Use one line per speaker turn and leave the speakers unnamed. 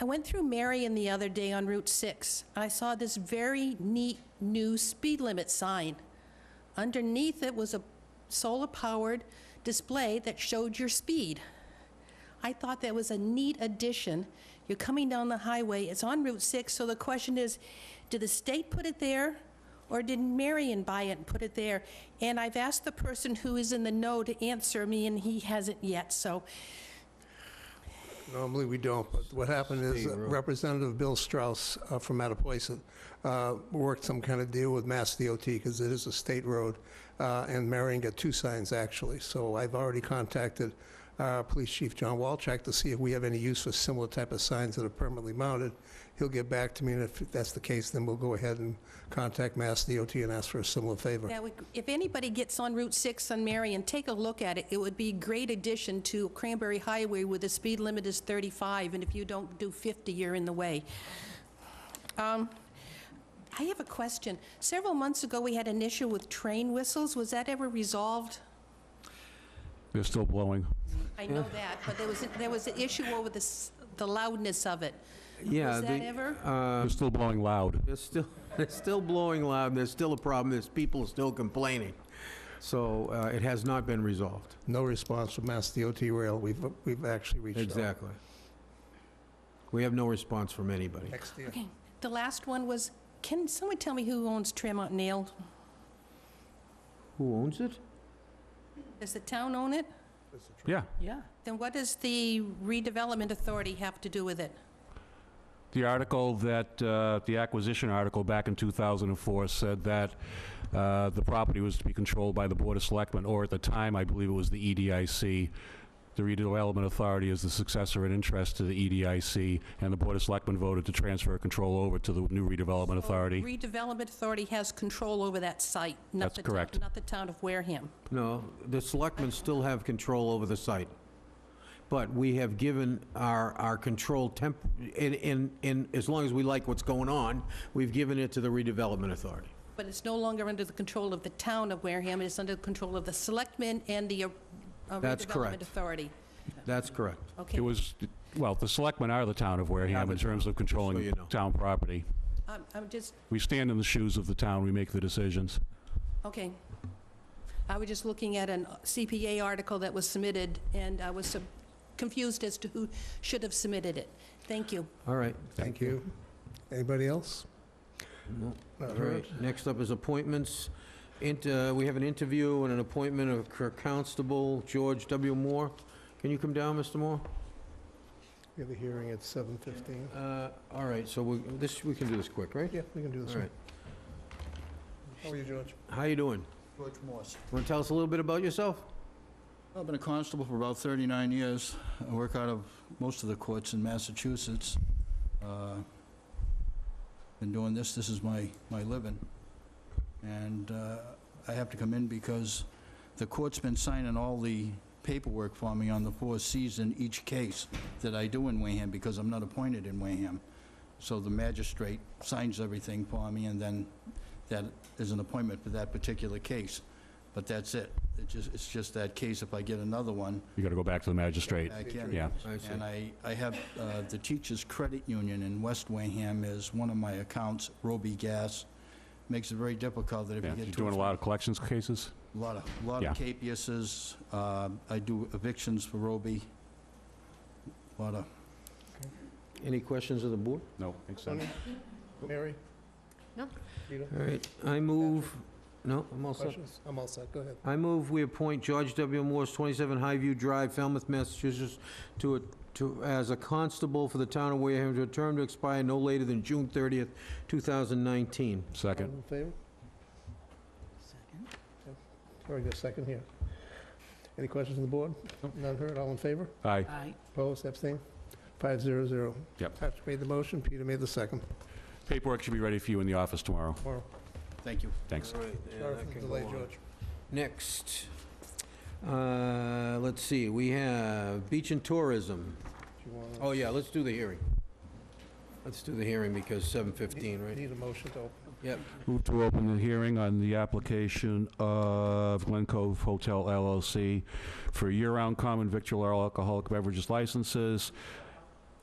I went through Marion the other day on Route 6, and I saw this very neat new speed limit sign. Underneath it was a solar-powered display that showed your speed. I thought that was a neat addition. You're coming down the highway, it's on Route 6, so the question is, did the state put it there, or did Marion buy it and put it there? And I've asked the person who is in the know to answer me, and he hasn't yet, so
Normally, we don't, but what happened is that Representative Bill Strauss uh, from Mattapoisett uh, worked some kind of deal with Mass DOT, because it is a state road, uh, and Marion got two signs, actually. So I've already contacted uh, Police Chief John Walczak to see if we have any use for similar type of signs that are permanently mounted. He'll get back to me, and if that's the case, then we'll go ahead and contact Mass DOT and ask for a similar favor.
That would, if anybody gets on Route 6 on Marion, take a look at it. It would be a great addition to Cranberry Highway where the speed limit is 35, and if you don't do 50, you're in the way. Um, I have a question. Several months ago, we had an issue with train whistles. Was that ever resolved?
They're still blowing.
I know that, but there was, there was an issue over the s- the loudness of it.
Yeah.
Was that
they-
ever?
uh,
They're still blowing loud.
They're still, they're still blowing loud, and there's still a problem, there's people still complaining. So uh, it has not been resolved.
No response from Mass DOT Rail. We've we've actually reached out.
Exactly. We have no response from anybody.
Next year.
Okay. The last one was, can someone tell me who owns Tremont Nail?
Who owns it?
Does the town own it?
Yeah.
Yeah. Then what does the redevelopment authority have to do with it?
The article that, uh, the acquisition article back in 2004 said that uh, the property was to be controlled by the Board of Selectmen, or at the time, I believe it was the EDIC. The redevelopment authority is the successor in interest to the E EDIC, and the Board of Selectmen voted to transfer control over to the new redevelopment authority.
Redevelopment Authority has control over that site, not
That's
the, town-
correct.
not the town of Wareham.
No, the selectmen still have control over the site. But we have given our, our control temp, in, in, in, as long as we like what's going on, we've given it to the redevelopment authority.
But it's no longer under the control of the town of Wareham, it's under the control of the selectmen and the uh, uh,
That's
redevelopment
correct.
authority.
That's correct.
Okay.
It was, well, the selectmen are the town of Wareham in terms of
you
controlling
know.
town property.
I'm I'm just,
We stand in the shoes of the town, we make the decisions.
okay. I was just looking at an CPA article that was submitted, and I was sub- confused as to who should have submitted it. Thank you.
All right.
Thank you. Anybody else?
No.
Not
All
heard.
right, next up is appointments. Int- uh, We have an interview and an appointment of Cur- Constable George W. Moore. Can you come down, Mr. Moore?
We have a hearing at 7:15.
Uh, All right, so we- this, we can do this quick, right?
Yeah, we can do this
All
one.
right.
How are you, George?
How you doing?
George Morse.
Want to tell us a little bit about yourself?
I've been a constable for about 39 years. I work out of most of the courts in Massachusetts. Uh, Been doing this, this is my, my living. And uh, I have to come in because the court's been signing all the paperwork for me on the four Cs in each case that I do in Wareham because I'm not appointed in Wareham. So the magistrate signs everything for me, and then that is an appointment for that particular case. But that's it. It just, it's just that case. If I get another one,
You gotta go back to the magistrate.
I can.
Yeah.
I see.
And I, I have, uh, the Teachers Credit Union in West Wayham is one of my accounts, Roby Gas. Makes it very difficult that if
Yeah,
you
you're
get.
doing a lot of collections cases?
Lot of, lot of capeuses. Uh, I do evictions for Roby. Lot of,
Any questions of the board?
No,
Tony? Mary?
No.
Peter?
All right, I move, no, I'm all set.
Questions? I'm all set, go ahead.
I move we appoint George W. Morse, 27 Highview Drive, Falmouth, Massachusetts, to, a- to, as a constable for the town of Wareham, to a term to expire no later than June 30th, 2019.
Second.
All in favor? Second. Very good, second here. Any questions on the board? None heard, all in favor?
Aye.
Opposed, abstained? Five zero zero.
Yep.
Patrick made the motion, Peter made the second.
Paperwork should be ready for you in the office tomorrow.
Tomorrow.
thank you.
Thanks.
All right, and
Sorry
that
for the
can
delay,
go on.
George.
Next, uh, let's see, we have Beach and Tourism.
Do you wanna-
Oh, yeah, let's do the hearing. Let's do the hearing because 7:15, right?
Need a motion to open.
Yep.
Move to open the hearing on the application of Glen Cove Hotel LLC for year-round common victual or alcoholic beverages licenses